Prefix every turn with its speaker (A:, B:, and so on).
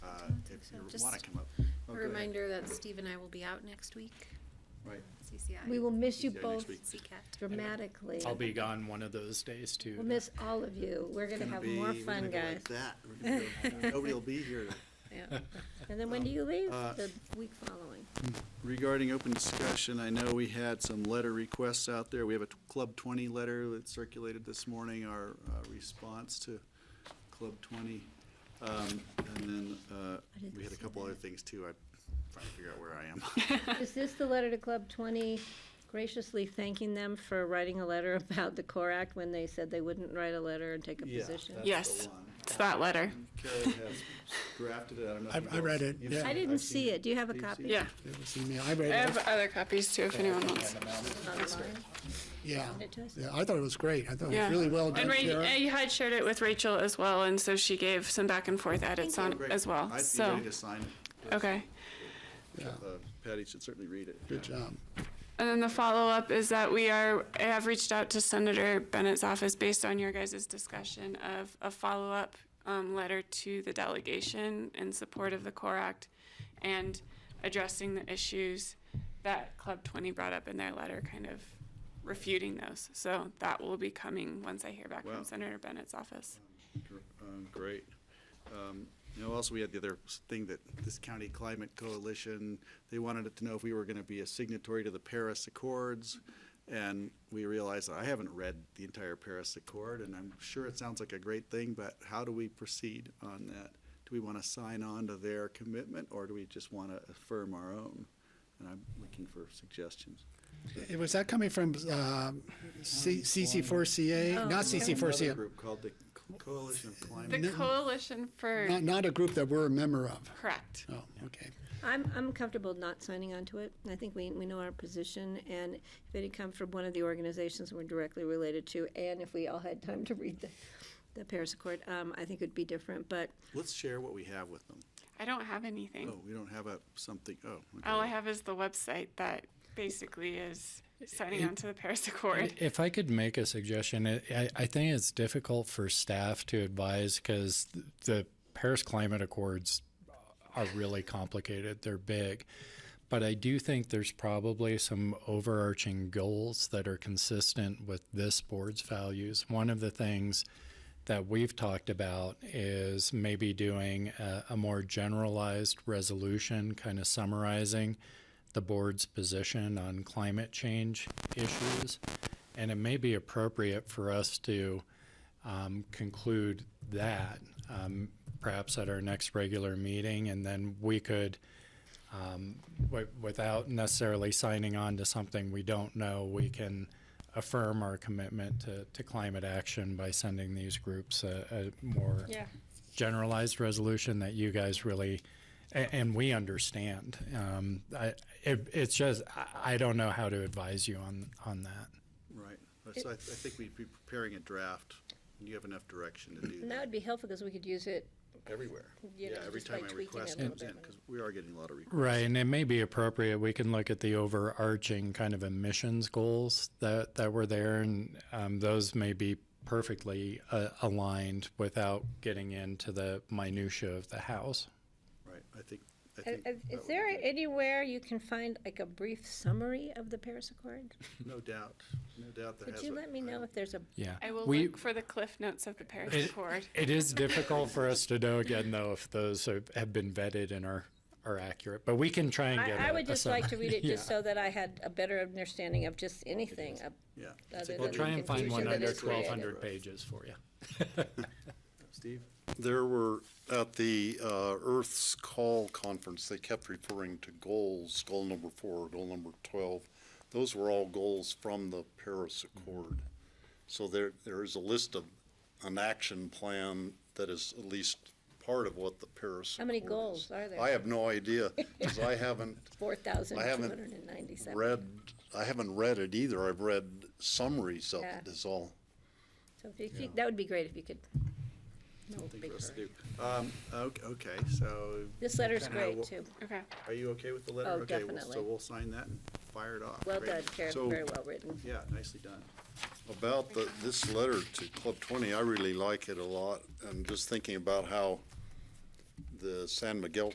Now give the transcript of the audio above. A: Uh,
B: so
A: your
B: just
A: water come up.
B: A
A: Oh, go ahead.
B: reminder that Steve and I will be out next week,
A: Right.
B: CCI.
C: We will miss
A: See
C: you
A: you next
C: both
A: week.
B: CCAT.
C: dramatically.
D: I'll be gone one of those days too.
C: We'll miss all of you. We're gonna have more
A: be- we're
C: fun,
A: gonna go
C: guys.
A: like that. We're gonna go- Nobody will be here.
B: Yeah.
C: And then when do you leave?
A: uh,
C: The week following.
A: Regarding open discussion, I know we had some letter requests out there. We have a t- Club 20 letter that circulated this morning, our uh, response to Club 20. Um, And then uh,
C: I didn't
A: we had a
C: see
A: couple
C: that.
A: other things too. I'm trying to figure out where I am.
C: Is this the letter to Club Twenty graciously thanking them for writing a letter about the CORE Act when they said they wouldn't write a letter and take a
A: Yeah,
C: position?
A: that's the
E: Yes.
A: one.
E: It's that letter.
A: Karen has drafted it. I don't know if
F: I-
A: you've
F: I read it,
A: you've
F: yeah.
A: seen
C: I didn't
A: I've seen
C: see it. Do you have a
A: You've seen
C: copy?
E: Yeah.
F: It was email. I read
E: I
F: it.
E: have other copies too if anyone wants.
C: Online?
F: Yeah.
C: Send it to us?
F: Yeah, I thought it was great. I thought it
E: Yeah.
F: was really well done,
E: And Ray,
F: Karen.
E: I had shared it with Rachel as well, and so she gave some back and forth edits on it
A: Great.
E: as well.
A: I'd be
E: So,
A: ready to sign it.
E: okay.
F: Yeah,
A: Uh, Patty should certainly read it.
F: Good job.
E: And then the follow-up is that we are, I have reached out to Senator Bennett's office based on your guys' discussion of a follow-up um, letter to the delegation in support of the CORE Act and addressing the issues that Club 20 brought up in their letter, kind of refuting those. So that will be coming once I hear back
A: Wow.
E: from Senator Bennett's office.
A: Gr- um, Great. Um, You know, also, we had the other s- thing that this county climate coalition, they wanted it to know if we were going to be a signatory to the Paris Accords. And we realized that I haven't read the entire Paris Accord, and I'm sure it sounds like a great thing, but how do we proceed on that? Do we want to sign on to their commitment, or do we just want to affirm our own? And I'm looking for suggestions.
F: Uh, Was that coming from um, C- CC4CA? Not
A: Another
F: CC4CA,
A: group called the Co- Coalition of Climate.
E: The Coalition for,
F: not, not a group that we're a member of.
E: correct.
F: Oh, okay.
C: I'm, I'm comfortable not signing on to it. I think we, we know our position, and if it had come from one of the organizations we're directly related to, and if we all had time to read the, the Paris Accord, um, I think it'd be different, but
A: Let's share what we have with them.
E: I don't have anything.
A: Oh, we don't have a something, oh. okay.
E: All I have is the website that basically is signing on to the Paris Accord.
D: If I could make a suggestion, I- I, I think it's difficult for staff to advise because the Paris Climate Accords are really complicated. They're big. But I do think there's probably some overarching goals that are consistent with this board's values. One of the things that we've talked about is maybe doing a, a more generalized resolution, kind of summarizing the board's position on climate change issues. And it may be appropriate for us to um, conclude that um, perhaps at our next regular meeting, and then we could, um, wi- without necessarily signing on to something we don't know, we can affirm our commitment to, to climate action by sending these groups a, a more generalized resolution that you guys really a- and we understand. Um, I, it, it's just I, I don't know how to advise you on on that.
A: Right, Uh, so I, I think we'd be preparing a draft, and you have enough direction to do
C: and that
A: that
C: would be helpful, because we could use it
A: everywhere.
C: You
A: Yeah,
C: know,
A: every
C: just by
A: time I
C: tweaking it a
A: request
C: little
A: comes
C: bit.
A: in, because we are getting a lot of requests.
D: Right, and it may be appropriate. We can look at the overarching kind of emissions goals that, that were there, and um, those may be perfectly uh, aligned without getting into the minutia of the house.
A: Right, I think, I
C: Uh,
A: think.
C: uh,
A: that
C: Is
A: would
C: there
A: be-
C: anywhere you can find like a brief summary of the Paris Accord?
A: No doubt, no doubt that has.
C: Could you
A: a-
C: let me
A: I-
C: know if there's a,
D: Yeah,
E: I will
D: We-
E: look for the cliff notes of the Paris
D: It-
E: Accord.
D: It is difficult for us to know again, though, if those have have been vetted and are are accurate. But we can try and get.
C: I, I
D: a-
C: would
D: a
C: just like to
D: summary.
C: read it
D: Yeah.
C: just so that I had a better understanding of just anything. up-
A: Yeah.
C: Other
A: Take a
C: than-
D: We'll
A: look.
D: try and find one
C: Confusion that
D: under
C: is created.
D: twelve hundred pages for you.
A: Steve?
G: There were, at the uh, Earth's Call Conference, they kept referring to goals, goal number four, goal number 12. Those were all goals from the Paris Accord. So there, there is a list of an action plan that is at least part of what the Paris.
C: How many
G: Accord is.
C: goals are there?
G: I have no idea, because I haven't
C: four thousand
G: I
C: two
G: haven't
C: hundred and ninety-seven?
G: read, I haven't read it either. I've read summaries of it
C: Yeah.
G: is all.
C: So if you- if you, that would be great if you could. No
A: Thing
C: big
A: for us to
C: hurry.
A: do. Um, ok- okay, so
C: This letter's
A: Kinda
C: great
A: what-
C: too.
E: Okay.
A: are you okay with the letter?
C: Oh,
A: Okay, we'll-
C: definitely.
A: So we'll sign that and fire it off.
C: Well
A: Great.
C: done, Karen,
G: So-
C: very well written.
A: Yeah, nicely done.
G: About the, this letter to Club 20, I really like it a lot. I'm just thinking about how the San Miguel